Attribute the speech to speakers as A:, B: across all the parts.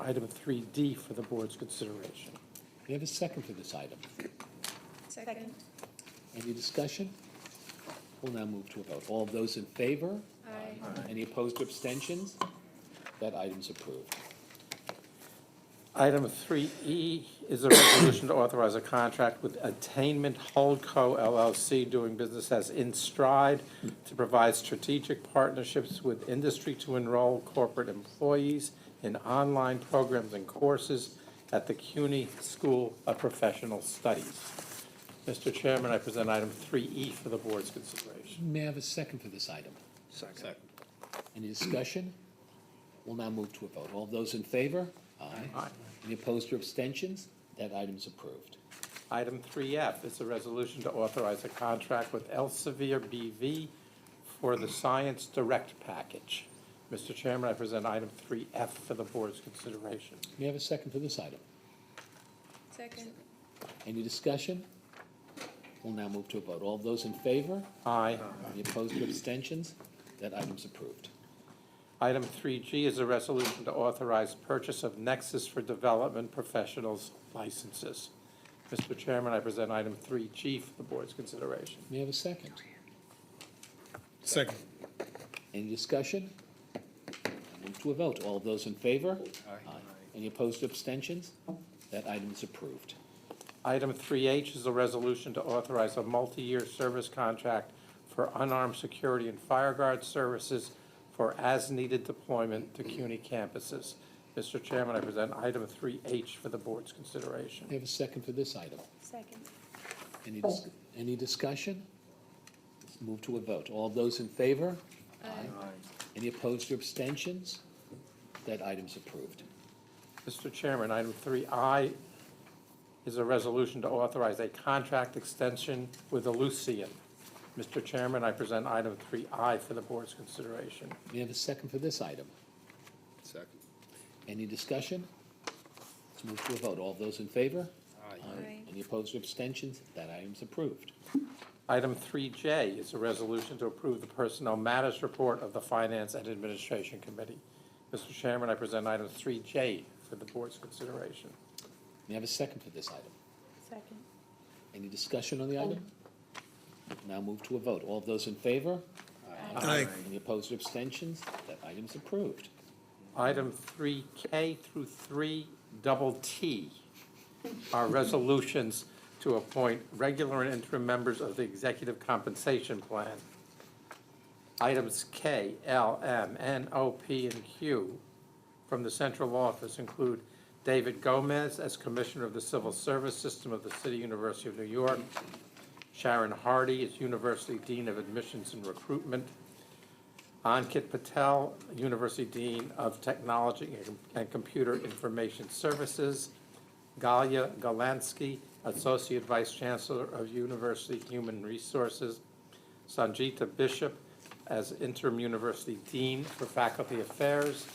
A: item 3D for the board's consideration.
B: We have a second for this item.
C: Second.
B: Any discussion? We'll now move to a vote. All of those in favor? Aye. Any opposed or abstentions? That item's approved.
A: Item 3E is a resolution to authorize a contract with Attainment Holdco LLC doing business as InStride to provide strategic partnerships with industry to enroll corporate employees in online programs and courses at the CUNY School of Professional Studies. Mr. Chairman, I present item 3E for the board's consideration.
B: May I have a second for this item? Second. Any discussion? We'll now move to a vote. All of those in favor?
A: Aye.
B: Any opposed or abstentions? That item's approved.
A: Item 3F is a resolution to authorize a contract with Elsevier BV for the Science Direct Package. Mr. Chairman, I present item 3F for the board's consideration.
B: May I have a second for this item?
C: Second.
B: Any discussion? We'll now move to a vote. All of those in favor?
A: Aye.
B: Any opposed or abstentions? That item's approved.
A: Item 3G is a resolution to authorize purchase of Nexus for Development Professionals licenses. Mr. Chairman, I present item 3G for the board's consideration.
B: May I have a second?
D: Second.
B: Any discussion? Move to a vote. All of those in favor? Aye. Any opposed or abstentions? That item is approved.
A: Item 3H is a resolution to authorize a multi-year service contract for unarmed security and fire guard services for as-needed deployment to CUNY campuses. Mr. Chairman, I present item 3H for the board's
B: May
A: consideration.
B: I have a second for this item?
C: Second.
B: Any, dis- any discussion? Let's move to a vote. All of those in favor? Aye. Any opposed or abstentions? That item's approved.
A: Mr. Chairman, item 3I is a resolution to authorize a contract extension with Elucian. Mr. Chairman, I present item 3I for the board's consideration.
B: May I have a second for this item?
D: Second.
B: Any discussion? Let's move to a vote. All of those in favor?
C: Aye.
B: Any opposed or abstentions? That item's approved.
A: Item 3J is a resolution to approve the Personnel Matters Report of the Finance and Administration Committee. Mr. Chairman, I present item 3J for the board's consideration.
B: May I have a second for this item?
C: Second.
B: Any discussion on the item? Now move to a vote. All of those in favor?
D: Aye.
B: Any opposed or abstentions? That item's approved.
A: Item 3K through 3 double T are resolutions to appoint regular and interim members of the Executive Compensation Plan. Items K, L, M, N, O, P, and Q from the central office include David Gomez as Commissioner of the Civil Service System of the City University of New York, Sharon Hardy as University Dean of Admissions and Recruitment, Ankit Patel, University Dean of Technology and Computer Information Services. Galia Galansky, Associate Vice Chancellor of University Human Resources. Sanjita Bishop as Interim University Dean for Faculty Affairs.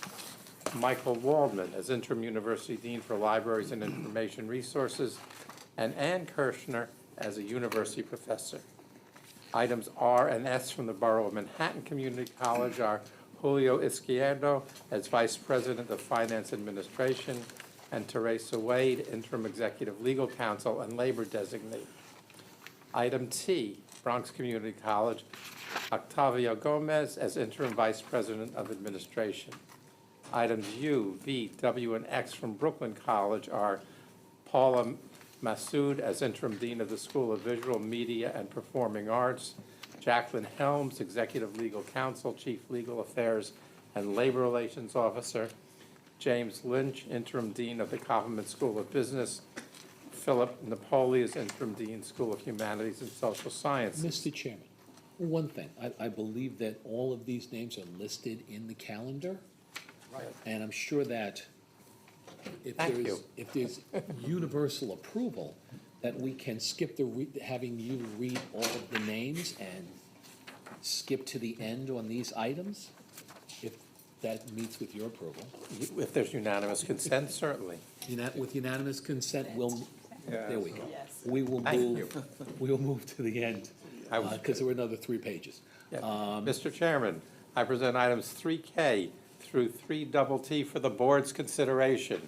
A: Michael Waldman as Interim University Dean for Libraries and Information Resources. And Ann Kirshner as a University Professor. Items R and S from the Borough of Manhattan Community College are Julio Izquierdo as Vice President of Finance Administration and Teresa Wade, Interim Executive Legal Counsel and Labor Designee. Item T, Bronx Community College, Octavio Gomez as Interim Vice President of Administration. Items U, V, W, and X from Brooklyn College are Paula Massoud as interim dean of the School of Visual Media and Performing Arts, Jacqueline Helms, executive legal counsel, chief legal affairs and labor relations officer, James Lynch, interim dean of the Kaufman School of Business, Philip Napoli is interim dean, School of Humanities and Social Sciences.
B: Mr. Chairman, one thing, I, I believe that all of these names are listed in the calendar. Right. And I'm sure that if
A: Thank
B: there's,
A: you.
B: if there's universal approval, that we can skip the, re- having you read all of the names and skip to the end on these items, if that meets with your approval.
A: If there's unanimous consent, certainly.
B: Unan- With unanimous consent, we'll, there we go.
C: Yes.
B: We will
A: Thank
B: move, we will move to the end,
A: I was
B: because there were another three pages.
A: Yeah. Mr. Chairman, I present items 3K through 3 double T for the board's consideration.